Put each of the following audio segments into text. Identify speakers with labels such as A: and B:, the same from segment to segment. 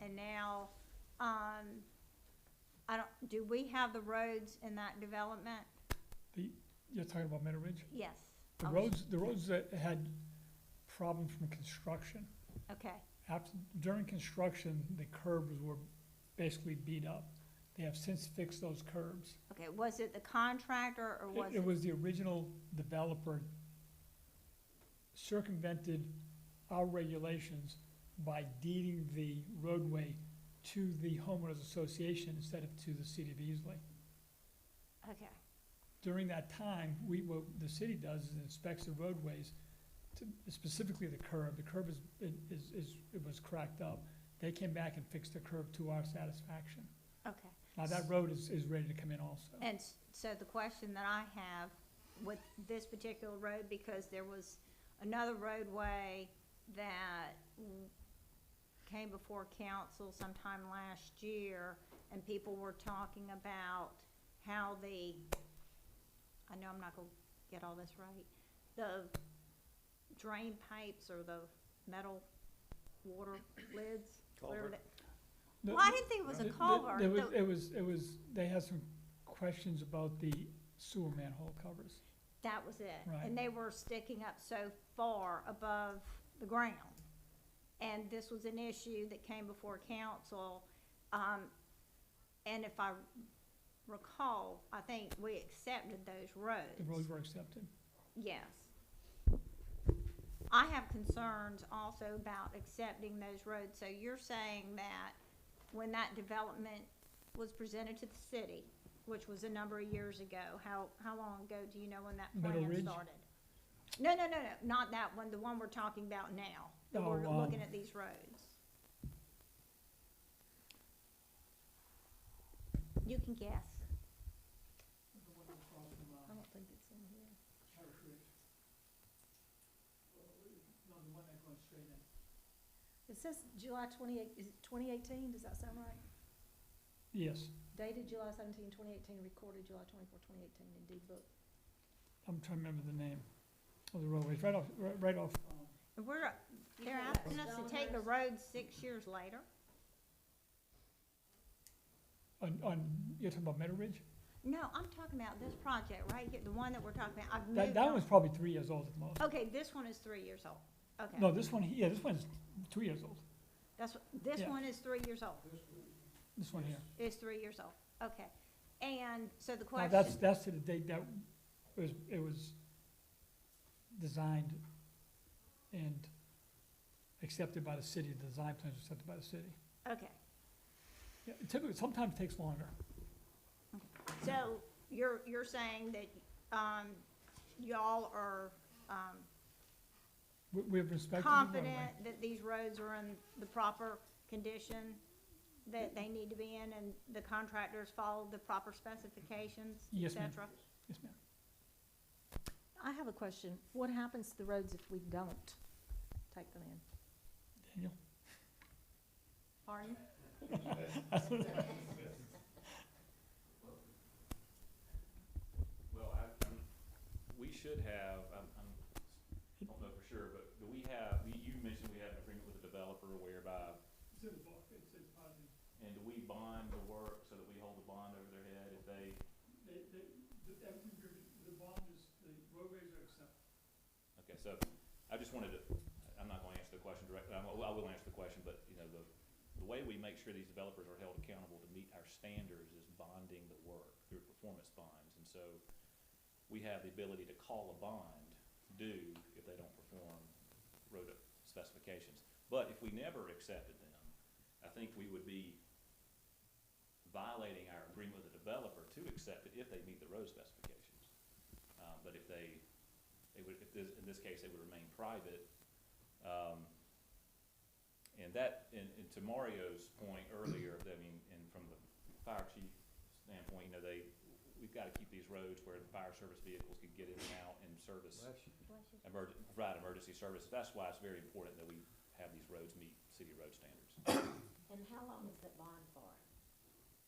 A: and now, um, I don't, do we have the roads in that development?
B: You're talking about Meadow Ridge?
A: Yes.
B: The
A: Okay.
B: roads, the roads that had problems from construction,
A: Okay,
B: after, during construction, the curbs were basically beat up. They have since fixed those curbs.
A: okay, was it the contractor or
B: It-
A: was
B: It
A: it?
B: was the original developer circumvented our regulations by deeding the roadway to the homeowners association instead of to the city of Easley.
A: Okay,
B: during that time, we, what the city does is inspects the roadways, to- specifically the curb, the curb is, is, is, it was cracked up. They came back and fixed the curb to our satisfaction.
A: okay.
B: Now, that road is, is ready to come in also.
A: And s- so the question that I have with this particular road, because there was another roadway that w- came before council sometime last year, and people were talking about how the, I know I'm not gonna get all this right, the drain pipes or the metal water lids? whatever
C: Culvert.
A: that-
B: The-
A: Well, I didn't think it was
B: the-
A: a
B: the-
A: culvert.
B: It was,
A: The-
B: it was, it was, they had some questions about the sewer manhole covers.
A: That was it.
B: Right.
A: And they were sticking up so far above the ground. And this was an issue that came before council. Um, and if I recall, I think we accepted those
B: The roads were accepted.
A: Yes. I have concerns also about accepting those roads, so you're saying that when that development was presented to the city, which was a number of years ago, how, how long ago do you know when that
B: Meadow
A: plan
B: Ridge?
A: started? No, no, no, no, not that one, the one we're talking about now, that we're
B: Oh, um,
A: looking at these roads. You can guess. I don't think it's in here.
D: It says July twenty-eight, is it twenty eighteen, does that sound right?
B: Yes,
D: Dated July 17, 2018, recorded July 24, 2018, in deed book.
B: I'm trying to remember the name of the roadways, right off, right- right off,
A: And We're, they're asking us to take the road six years later?
B: on, on, you're talking about Meadow Ridge?
A: No, I'm talking about this project right here, the one that we're talking about, I've
B: That,
A: moved
B: that
A: on.
B: one's probably three years old at most.
A: Okay, this one is three years old,
B: No,
A: okay,
B: this one, yeah, this one's two years old,
A: that's, what- this
B: Yeah.
A: one is three years old,
B: this one here.
A: is three years old, okay. And, so the
B: Now, that's,
A: question,
B: that's to the date that it was, it was designed and accepted by the city, the design plans were accepted by the city.
A: okay,
B: Yeah, it typically, sometimes it takes longer.
A: so you're, you're saying that, um, y'all are, um,
B: We, we have respected the roadway.
A: confident that these roads are in the proper condition that they need to be in, and the contractors followed the proper specifications, et
B: Yes, ma'am.
A: cetera?
B: Yes, ma'am.
D: I have a question. What happens to the roads if we don't take them in?
B: Daniel?
A: Pardon?
C: Well, I, I'm, we should have, I'm, I'm, I don't know for sure, but do we have, you, you mentioned we had an agreement with the developer whereby, and do we bond the work so that we hold the bond over their head if they, okay, so I just wanted to, I'm not gonna answer the question directly, I'm, I will answer the question, but, you know, the, the way we make sure these developers are held accountable to meet our standards is bonding the work through performance bonds, and so we have the ability to call a bond due if they don't perform road specifications. But if we never accepted them, I think we would be violating our agreement with the developer to accept it if they meet the road specifications. Uh, but if they, they would, if this, in this case, they would remain private. Um, and that, and, and to Mario's point earlier, I mean, and from the fire chief standpoint, you know, they, we've gotta keep these roads where the fire service vehicles can get in and out and service emerg- provide emergency services. That's why it's very important that we have these roads meet city road standards
E: And how long is that bond for?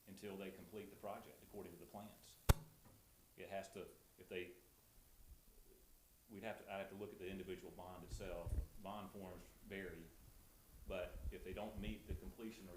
C: until they complete the project according to the plans. It has to, if they, we'd have to, I'd have to look at the individual bond itself. Bond forms vary, but if they don't meet the completion or